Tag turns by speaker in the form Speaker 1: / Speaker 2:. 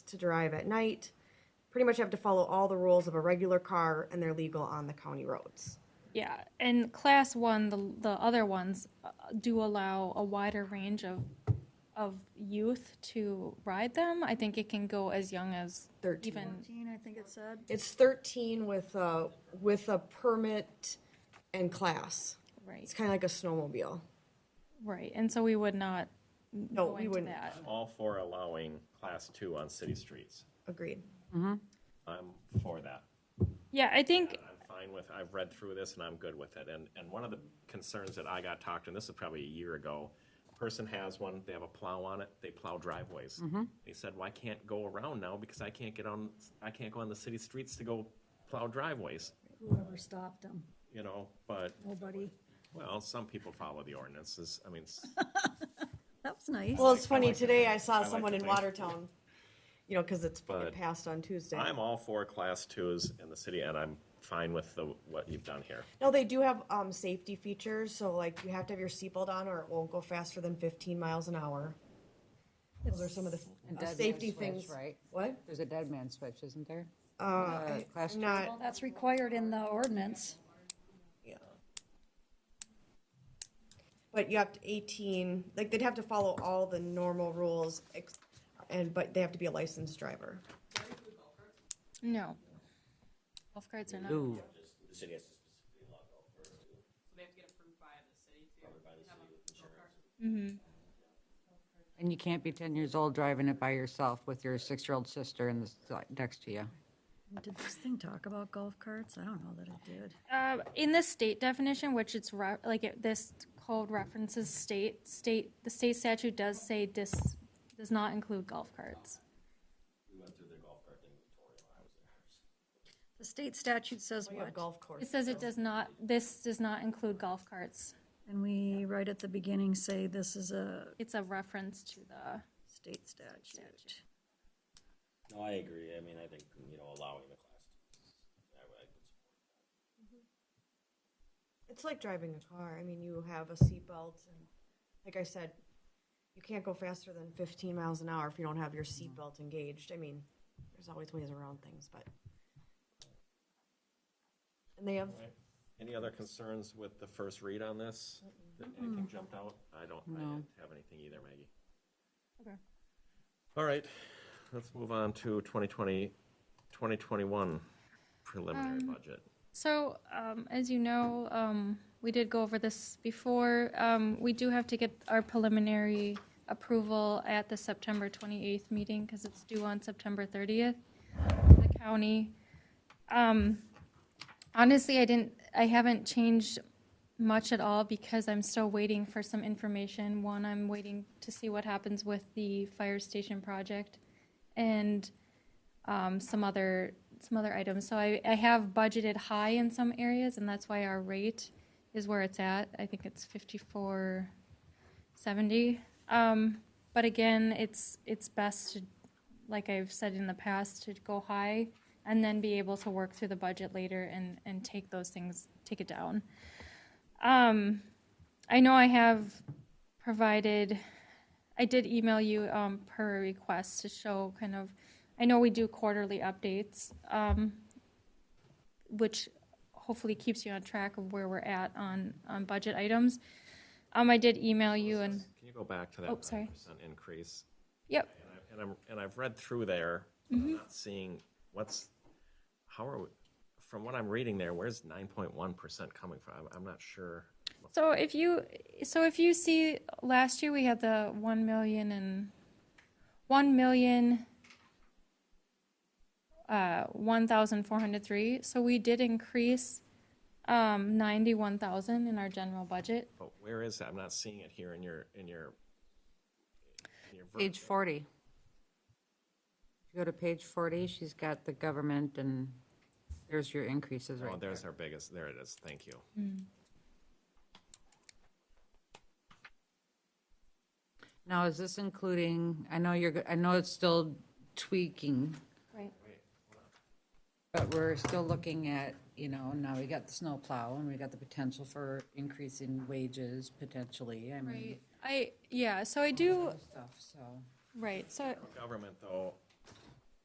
Speaker 1: to drive at night, pretty much have to follow all the rules of a regular car, and they're legal on the county roads.
Speaker 2: Yeah, and class one, the, the other ones uh, do allow a wider range of, of youth to ride them. I think it can go as young as
Speaker 1: 13.
Speaker 2: even,
Speaker 3: Fourteen, I think it said.
Speaker 1: It's 13 with a, with a permit and class.
Speaker 2: right,
Speaker 1: It's kind of like a snowmobile.
Speaker 2: right. And so we would not
Speaker 1: No,
Speaker 2: go
Speaker 1: we
Speaker 2: into
Speaker 1: wouldn't.
Speaker 2: that.
Speaker 4: all for allowing class two on city streets.
Speaker 1: Agreed.
Speaker 4: I'm for that.
Speaker 2: Yeah, I think,
Speaker 4: I'm fine with, I've read through this and I'm good with it. And, and one of the concerns that I got talked, to, and this is probably a year ago, person has one, they have a plow on it, they plow driveways. They said, well, I can't go around now because I can't get on, I can't go on the city streets to go plow driveways,
Speaker 3: Whoever stopped them,
Speaker 4: you know, but,
Speaker 3: nobody.
Speaker 4: well, some people follow the ordinances. I mean, s-
Speaker 3: That was nice.
Speaker 1: Well, it's funny,
Speaker 4: like to
Speaker 1: today
Speaker 4: think-
Speaker 1: I
Speaker 4: I
Speaker 1: saw
Speaker 4: like
Speaker 1: someone
Speaker 4: to
Speaker 1: in
Speaker 4: think.
Speaker 1: Watertown, you know, because it's it
Speaker 4: But
Speaker 1: passed on Tuesday.
Speaker 4: I'm all for class twos in the city and I'm fine with the, what you've done here.
Speaker 1: No, they do have um, safety features, so like you have to have your seatbelt on or it won't go faster than 15 miles an hour. Those are some of the
Speaker 5: And
Speaker 1: uh,
Speaker 5: dead man
Speaker 1: safety
Speaker 5: switch,
Speaker 1: things.
Speaker 5: right?
Speaker 1: What?
Speaker 5: There's a dead man switch, isn't there?
Speaker 1: Uh, I-
Speaker 5: class
Speaker 1: I'm
Speaker 5: two.
Speaker 1: not.
Speaker 3: Well, that's required in the ordinance.
Speaker 1: Yeah. But you have to 18. Like they'd have to follow all the normal rules, ex- and but they have to be a licensed driver.
Speaker 2: no. Golf carts are not.
Speaker 6: The city has to specifically allow golf carts to.
Speaker 7: They have to get approved by the city too.
Speaker 6: by the city with insurance.
Speaker 5: And you can't be 10 years old driving it by yourself with your six-year-old sister in the, s- next to you.
Speaker 3: Did this thing talk about golf carts? I don't know that it did.
Speaker 2: Uh, in the state definition, which it's re- like it, this code references state state the state statute does say dis does not include golf carts.
Speaker 6: We went through the golf cart thing with Tori when I was there.
Speaker 3: The state statute says
Speaker 1: We have
Speaker 3: what?
Speaker 1: golf
Speaker 2: It
Speaker 1: course.
Speaker 2: says it does not. This does not include golf carts.
Speaker 3: And we, right at the beginning, say this is a
Speaker 2: It's a reference to the
Speaker 3: state statute.
Speaker 6: No, I agree. I mean, I think, you know, allowing the class. to- I would- I would support
Speaker 1: It's like driving a car. I mean, you have a seatbelt, and like I said, you can't go faster than 15 miles an hour if you don't have your seatbelt engaged. I mean, there's always ways around things, but. And they have.
Speaker 4: Any other concerns with the first read on this? That Anything jumped out? I don't, I didn't have anything either, Maggie.
Speaker 2: Okay.
Speaker 4: All right, let's move on to 2020, 2021 preliminary
Speaker 2: Um,
Speaker 4: budget.
Speaker 2: So, um, as you know, um, we did go over this before. Um, we do have to get our preliminary approval at the September 28th meeting because it's due on September 30th. for The county. Um, honestly, I didn't. I haven't changed much at all because I'm still waiting for some information. One, I'm waiting to see what happens with the fire station project, and um, some other some other items. So I, I have budgeted high in some areas, and that's why our rate is where it's at. I think it's fifty four seventy. Um, but again, it's it's best to, like I've said in the past, to go high and then be able to work through the budget later and and take those things take it down. Um, I know I have provided. I did email you um, per request to show kind of, I know we do quarterly updates, um, which hopefully keeps you on track of where we're at on, on budget items. Um, I did email you and,
Speaker 4: Can you go back to that
Speaker 2: Oh, sorry.
Speaker 4: 9% increase?
Speaker 2: yep,
Speaker 4: And I- And I'm, and I've read through there, but
Speaker 2: Mm-hmm.
Speaker 4: I'm not seeing what's, how are, we? from what I'm reading there, where's 9.1% coming from? I'm- I'm not sure.
Speaker 2: So if you, so if you see, last year we had the one million and, one million, uh, one thousand four hundred three, so we did increase, um, ninety-one thousand in our general budget.
Speaker 4: But where is that? I'm not seeing it here in your, in your. in your ver-
Speaker 5: Page 40. If you go to page 40, she's got the government, and there's your increases
Speaker 4: Oh,
Speaker 5: right there. Mm.
Speaker 4: there's our biggest, there it is, thank you.
Speaker 5: Now, is this including, I know you're, go- I know it's still tweaking,
Speaker 2: Right.
Speaker 5: But we're still looking at, you know, now we got the snowplow and we got the potential for increase in wages potentially, I mean,
Speaker 2: I, yeah, so I do,
Speaker 5: stuff, so.
Speaker 2: right, so,
Speaker 4: Government, though,